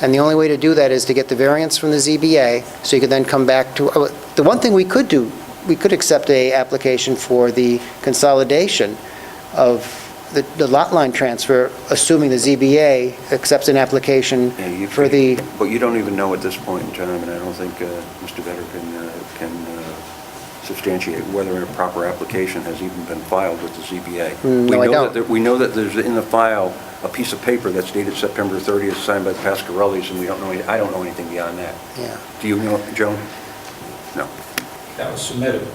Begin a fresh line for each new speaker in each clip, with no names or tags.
And the only way to do that is to get the variance from the ZBA, so you could then come back to, oh, the one thing we could do, we could accept a application for the consolidation of the- the lot line transfer, assuming the ZBA accepts an application
Yeah, you
for
could-
the,
But you don't even know at this point in time, and I don't think uh, Mr. Vedder can, uh, can uh, substantiate whether a proper application has even been filed with the ZBA.
Mm,
We
no, I
know that
don't.
there- We know that there's in the file a piece of paper that's dated September 30th, signed by the Pascarellis, and we don't know, any- I don't know anything beyond that.
yeah,
Do you know, Joan? No.
That was submitted.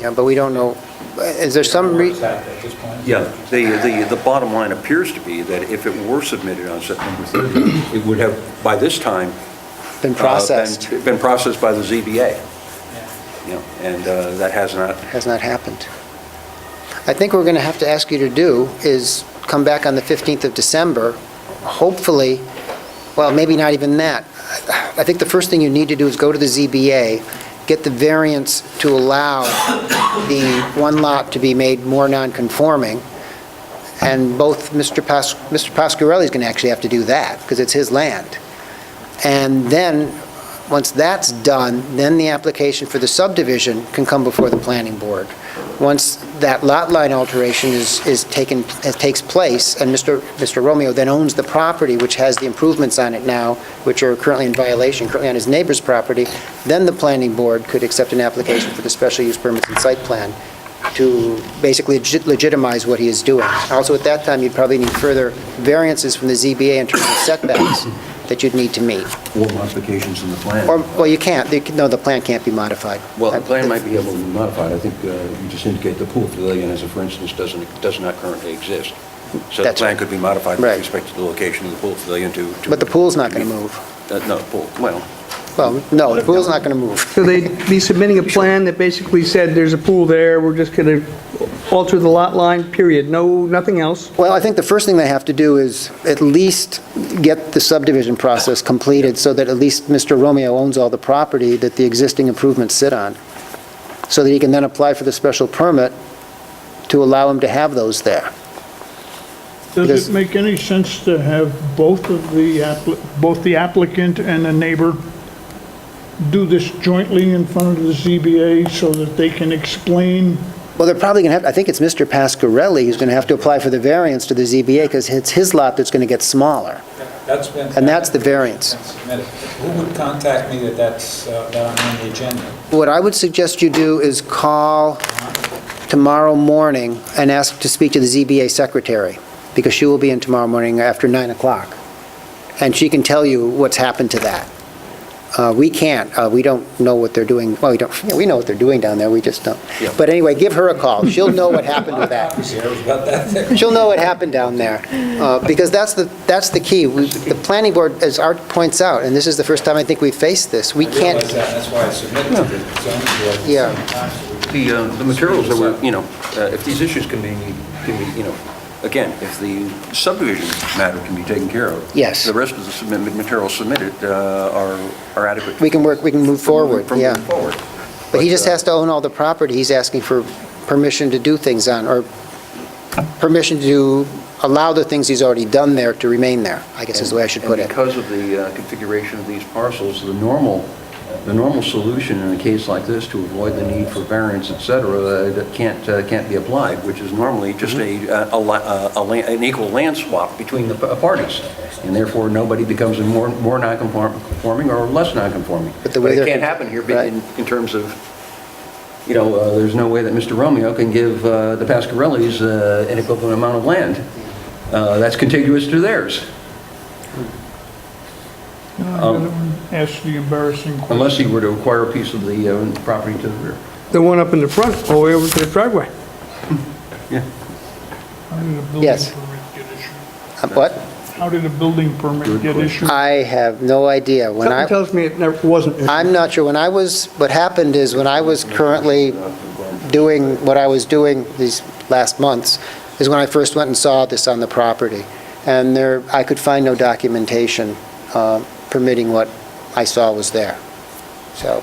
yeah, but we don't know, is there some
Where
re,
is that At this point?
Yeah, the, the, the bottom line appears to be that if it were submitted on September 30th, it would have, by this time,
been
uh,
processed,
Been been processed by the ZBA.
Yeah.
you know, and uh, that has not,
has not happened. I think what we're going to have to ask you to do is come back on the 15th of December, hopefully, well, maybe not even that. I think the first thing you need to do is go to the ZBA, get the variance to allow the one lot to be made more non-conforming, and both Mr. Pas, Mr. Pasquarelli's going to actually have to do that, because it's his land. And then, once that's done, then the application for the subdivision can come before the planning board. Once that lot line alteration is, is taken, uh, takes place, and Mr. Mr. Romeo then owns the property, which has the improvements on it now, which are currently in violation, currently on his neighbor's property, then the planning board could accept an application for the special use permits and site plan to basically legit- legitimize what he is doing. Also, at that time, you'd probably need further variances from the ZBA in terms of setbacks that you'd need to meet.
or modifications in the plan.
Or, well, you can't, You can- no, the plan can't be modified.
Well, the plan might be able to be modified. I think uh, you just indicate the pool pavilion, as a for instance, doesn't, does not currently exist. So the
That's
plan
right.
could be modified with
Right.
respect to the location of the pool pavilion to... to-
But the pool's not going to move.
Uh, No, the pool, well,
Well, no, the pool's not going to move.
So they'd be submitting a plan that basically said, there's a pool there, we're just going to alter the lot line, period, no, nothing else.
Well, I think the first thing they have to do is at least get the subdivision process completed so that at least Mr. Romeo owns all the property that the existing improvements sit on, so that he can then apply for the special permit to allow him to have those there. Because-
Does it make any sense to have both of the, appli- both the applicant and the neighbor do this jointly in front of the ZBA so that they can explain?
Well, they're probably going to have, I think it's Mr. Pascarelli who's going to have to apply for the variance to the ZBA because it's his lot that's going to get smaller.
That's been.
And that's the variance.
Been submitted. Who would contact me that that's, uh, that I'm on the agenda?
What I would suggest you do is call tomorrow morning and ask to speak to the ZBA secretary, because she will be in tomorrow morning after 9 o'clock, and she can tell you what's happened to that. Uh, We can't, uh, we don't know what they're doing, well, we don't, yeah, we know what they're doing down there, we just don't.
Yeah.
But anyway, give her a call, she'll know what happened with that.
Copies here, it was about that thick.
She'll know what happened down there, uh, because that's the, that's the key. We- The planning board, as Art points out, and this is the first time I think we've faced this, we
I realize
can't,
that, and that's why I submitted to the zoning board.
Yeah.
the, uh, the materials that were, you know, uh, if these issues can be, can be, you know, again, if the subdivision matter can be taken care of.
Yes.
The rest of the submitted, materials submitted uh, are are adequate.
we can work, we can move forward,
From
yeah.
moving forward.
But he just
uh,
has to own all the property he's asking for permission to do things on, or permission to allow the things he's already done there to remain there, I guess is the way I should put it.
And because of the uh, configuration of these parcels, the normal, the normal solution in a case like this to avoid the need for variance, et cetera, uh, that can't, uh, can't be applied, which is normally just a,
Mm-hmm.
uh, a la- uh, a la- an equal land swap between the p- parties. And therefore, nobody becomes a more, more non-conforming or less non-conforming.
But
But
the way
it
they're-
can't happen here be-
Right.
in, in terms of, you know, uh, there's no way that Mr. Romeo can give uh, the Pascarellis uh, an equivalent amount of land uh, that's contiguous to theirs.
Ask the embarrassing question.
Um, Unless he were to acquire a piece of the uh, property to the rear.
The one up in the front, all the way over to the driveway.
How did a building
Yes.
permit get issued?
Uh, What?
How did a building permit
Good
get
question.
issued?
I have no idea. When
Something
I,
tells me it never wasn't.
I'm not sure, when I was, what happened is, when I was currently doing what I was doing these last months, is when I first went and saw this on the property. And there, I could find no documentation uh, permitting what I saw was there. So,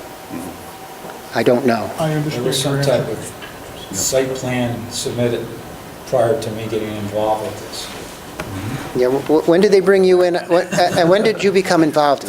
I don't know.
I
There
understand.
was some
your
type
answer.
of site plan submitted prior to me getting involved with this.
Yeah, wh- wh- when did they bring you in, When- and when did you become involved in